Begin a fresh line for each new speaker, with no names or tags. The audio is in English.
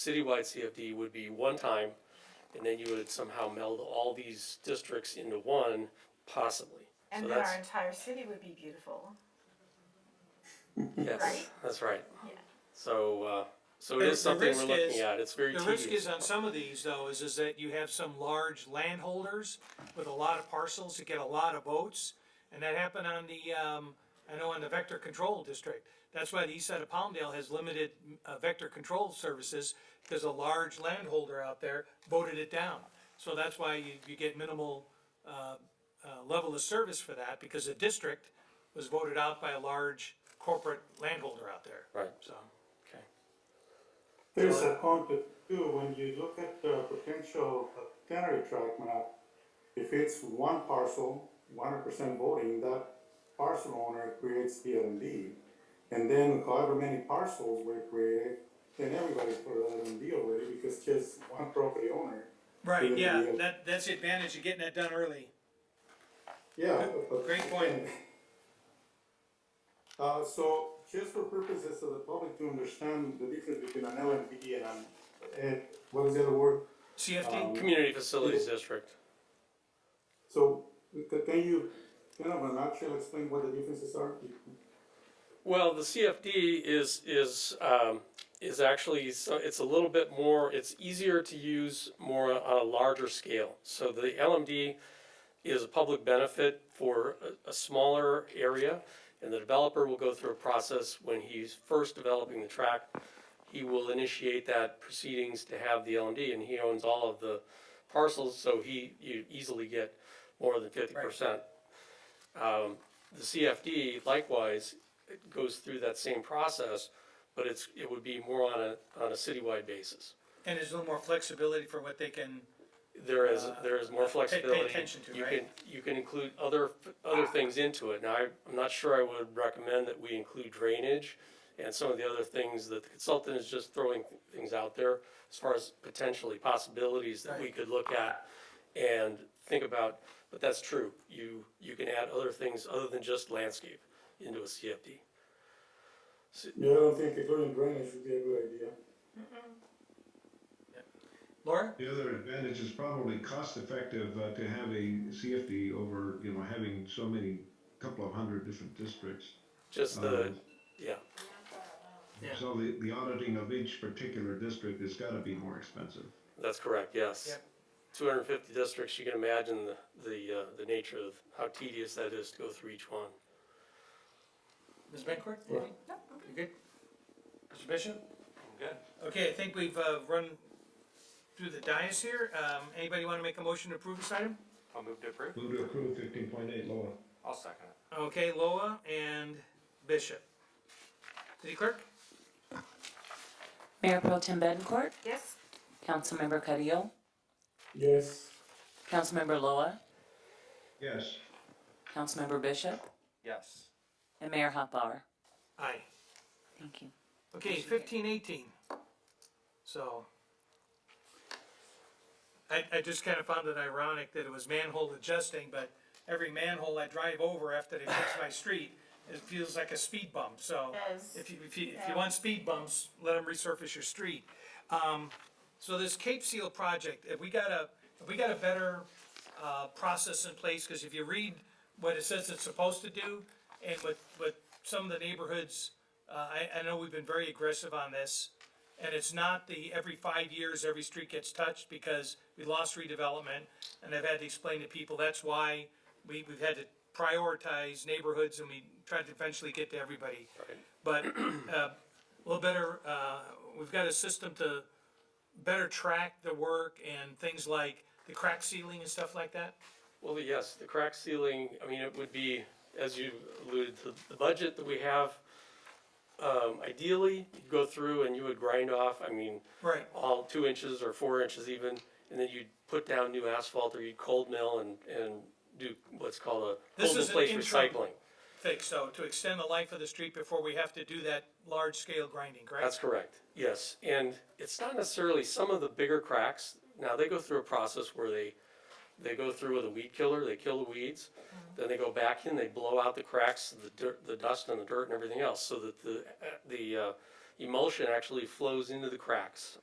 citywide CFD would be one time, and then you would somehow meld all these districts into one, possibly. So
And then
that's
our entire city would be beautiful.
Yes,
right?
that's right.
Yeah.
So, uh, so it
The-
is
the
something we're
risk is-
looking at, it's very
The risk is
tedious.
on some of these though, is, is that you have some large landholders with a lot of parcels that get a lot of votes. And that happened on the, um, I know on the vector control district. That's why the east side of Palmdale has limited, uh, vector control services, because a large landholder out there voted it down. So that's why you, you get minimal, uh, uh, level of service for that, because the district was voted out by a large corporate landholder out there.
Right.
So,
Okay.
There's a concept too, when you look at the potential plenary tract map, if it's one parcel, one hundred percent voting, that parcel owner creates the LMD. And then however many parcels were created, then everybody's for LMD already because just one property owner.
right,
created
yeah,
the LMD.
that, that's the advantage of getting that done early.
Yeah.
Good-
but-
great point.
Uh, so just for purposes of the public to understand the difference between an LMPD and an, and what is the other word?
CFD?
Community Facilities District.
So c- can you kind of in a nutshell explain what the differences are?
Well, the CFD is, is, um, is actually, so it's a little bit more, it's easier to use more on a larger scale. So the LMD is a public benefit for a, a smaller area, and the developer will go through a process when he's first developing the tract. He will initiate that proceedings to have the LMD, and he owns all of the parcels, so he, you easily get more than fifty percent. Um, the CFD likewise it goes through that same process, but it's, it would be more on a, on a citywide basis.
And there's a little more flexibility for what they can,
There is, there is more
Ah, pay- pay
flexibility.
attention to,
You
right?
can, you can include other, f- other things into it. Now, I- I'm not sure I would recommend that we include drainage and some of the other things that the consultant is just throwing th- things out there as far as potentially possibilities that we could look at and think about, but that's true. You, you can add other things other than just landscape into a CFD.
Yeah, I don't think including drainage would be a good idea.
Laura?
The other advantage is probably cost effective uh, to have a CFD over, you know, having so many, couple of hundred different districts.
Just the,
Um,
yeah.
Yeah.
So the, the auditing of each particular district has gotta be more expensive.
That's correct, yes.
Yep.
Two hundred and fifty districts, you can imagine the, the, uh, the nature of how tedious that is to go through each one.
Ms. Bencourt? anything? You good? Mr. Bishop? Good. Okay, I think we've, uh, run through the dais here. Um, anybody wanna make a motion to approve this item?
I'll move to approve.
Move to approve fifteen point eight, Loa.
I'll second it.
Okay, Loa and Bishop. City Clerk?
Mayor Pro Tem Council
Yes?
Councilmember Carrillo,
Yes.
Councilmember Loa,
Yes.
Councilmember Bishop,
Yes.
and Mayor Hoffbauer.
Aye.
Thank you.
Okay, fifteen eighteen. So. I, I just kind of found it ironic that it was manhole adjusting, but every manhole I drive over after they fix my street, it feels like a speed bump, so.
Yes.
If you, if you, if you want speed bumps, let them resurface your street. Um, so this Cape Seal project, if we got a, if we got a better, uh, process in place, cause if you read what it says it's supposed to do, and what, what some of the neighborhoods, uh, I, I know we've been very aggressive on this, and it's not the every five years, every street gets touched, because we lost redevelopment, and I've had to explain to people, that's why we, we've had to prioritize neighborhoods, and we tried to eventually get to everybody. But, uh, a little better, uh, we've got a system to better track the work and things like the crack sealing and stuff like that?
Well, yes, the crack ceiling, I mean, it would be, as you alluded to, the budget that we have. Um, ideally, you'd go through and you would grind off, I mean,
Right.
all two inches or four inches even, and then you'd put down new asphalt or you'd cold mill and, and do what's called a
This
cold in
is an
place
interim.
recycling.
Fix, so to extend the life of the street before we have to do that large scale grinding,
That's correct,
correct?
yes, and it's not necessarily some of the bigger cracks, now they go through a process where they, they go through with a weed killer, they kill the weeds, then they go back in, they blow out the cracks, the dirt, the dust and the dirt and everything else, so that the, the, uh, emulsion actually uh, flows into the cracks